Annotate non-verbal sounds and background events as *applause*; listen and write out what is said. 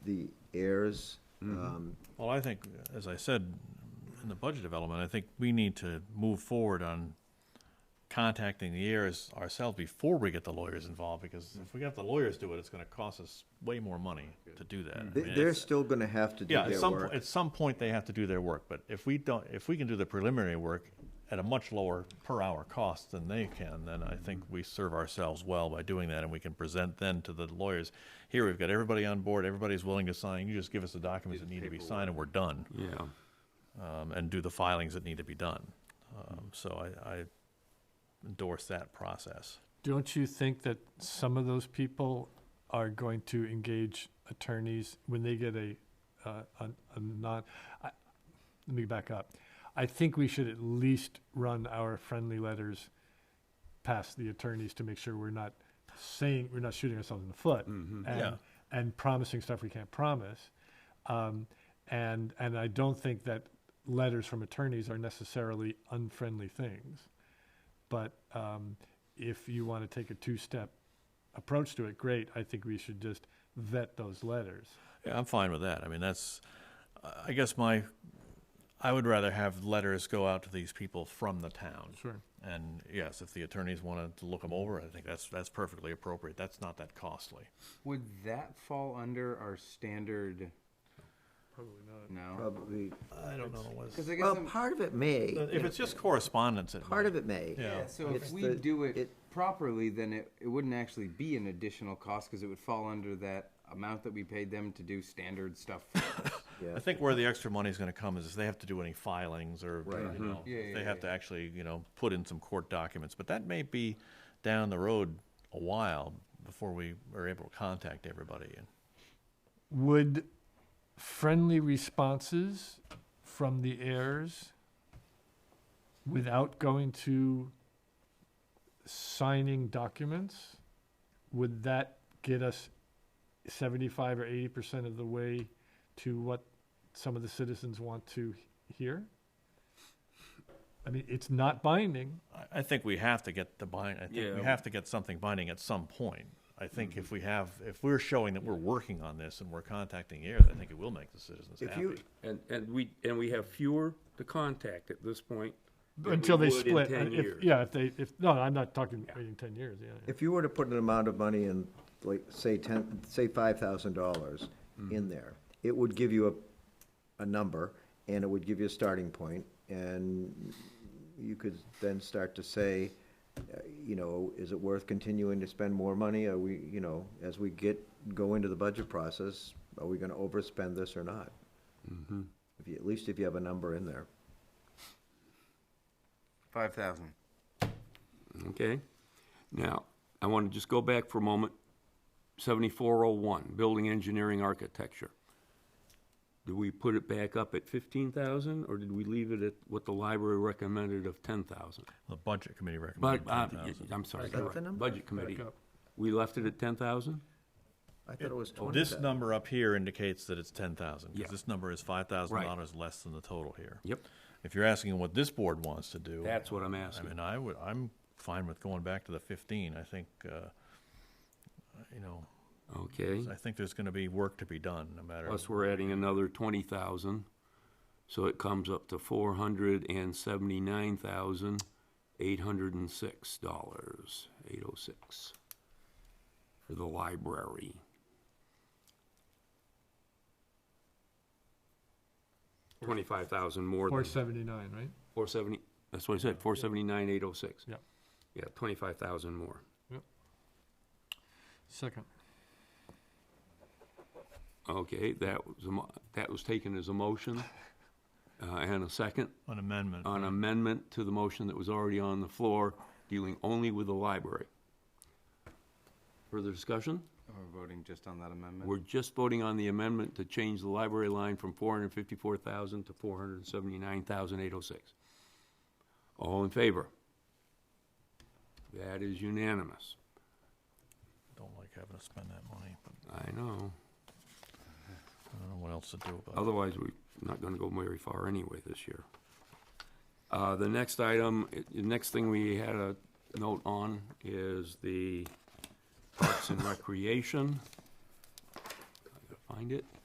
the heirs. Mm-hmm. Um, Well, I think, as I said in the budget development, I think we need to move forward on contacting the heirs ourselves before we get the lawyers involved, because if we have the lawyers do it, it's gonna cost us way more money to do that. I they- mean, They're it's- uh, still gonna have to do Yeah, at their some, po- work. at some point, they have to do their work, but if we don't, if we can do the preliminary work at a much lower per hour cost than they can, then I think we serve ourselves well by doing that, and we can present then to the lawyers, here, we've got everybody on board, everybody's willing to sign, you just give us the documents that need to be signed, and we're done. Yeah. um, and do the filings that need to be done. Um, so I, I endorse that process. Don't you think that some of those people are going to engage attorneys when they get a, uh, a, a non, I, let me back up. I think we should at least run our friendly letters past the attorneys to make sure we're not saying, we're not shooting ourselves in the foot. And, Yeah. and promising stuff we can't promise. Um, and, and I don't think that letters from attorneys are necessarily unfriendly things. But um, if you want to take a two-step approach to it, great. I think we should just vet those letters. Yeah, I'm fine with that. I mean, that's, I guess my, I would rather have letters go out to these people from the town. Sure. And yes, if the attorneys wanted to look them over, I think that's, that's perfectly appropriate. That's not that costly. Would that fall under our standard? Probably not. No, Probably, I don't know what. because I guess well, I'm- part of it may, If it's just correspondence, it part might- of it may. Yeah. yeah. So if It's we the- do it, it- properly, then it, it wouldn't actually be an additional cost because it would fall under that amount that we paid them to do standard stuff. for us. Yeah. I think where the extra money is going to come is if they have to do any filings or, Right. you know, Yeah, if yeah, they have yeah. to actually, you know, put in some court documents. But that may be down the road a while before we are able to contact everybody. And Would friendly responses from the heirs, without going to signing documents, would that get us seventy-five or eighty percent of the way to what some of the citizens want to he- hear? I mean, it's not binding. I, I think we have to get the bind, I think we Yeah. have to get something binding at some point. I think if we have, if we're showing that we're working on this and we're contacting heirs, I think it will make the citizens If happy. you- And, and we, and we have fewer to contact at this point. than we Until they would in split. uh, 10 if- years. Yeah, if they, if, no, I'm not talking waiting ten years, yeah, yeah. If you were to put an amount of money in, like, say ten, say five thousand dollars in there, it would give you a, a number, and it would give you a starting point, and you could then start to say, uh, you know, is it worth continuing to spend more money? Are we, you know, as we get, go into the budget process, are we gonna overspend this or not? If you, at least if you have a number in there. *laughs* Five thousand. Okay? Now, I want to just go back for a moment. 7401, building engineering architecture. Do we put it back up at 15,000 or did we leave it at what the library recommended of 10,000? The budget committee recommended But, uh, 10,000. I'm sorry, that correct. the number? budget committee. up. We left it at 10,000? I thought it was twenty. This number up here indicates that it's ten thousand, Yeah. because this number is five thousand dollars Right. less than the total here. Yep. If you're asking what this board wants to do. That's what I'm I asking. mean, I would, I'm fine with going back to the fifteen, I think, uh, you know, Okay. I think there's gonna be work to be done, no matter. Plus, we're adding another twenty thousand, so it comes up to four hundred and seventy-nine thousand, eight hundred and six dollars, eight oh six, for the library. Twenty-five thousand more Four than, seventy-nine, right? four seventy, that's what I said, four seventy-nine, eight oh six. Yeah. Yeah, twenty-five thousand more. Second. Okay, that was, a mo- that was taken as a motion, uh, and a second. An amendment, an amendment to the motion that was already on the floor, dealing only with the library. Further discussion? We're voting just on that amendment. We're just voting on the amendment to change the library line from four hundred and fifty-four thousand to four hundred and seventy-nine thousand eight oh six. All in favor? That is unanimous. don't like having to spend that money, but I know. I don't know what else to do about it. Otherwise, we're not gonna go very far anyway this year. Uh, the next item, i- the next thing we had a note on is the Parks and Recreation. I gotta find it?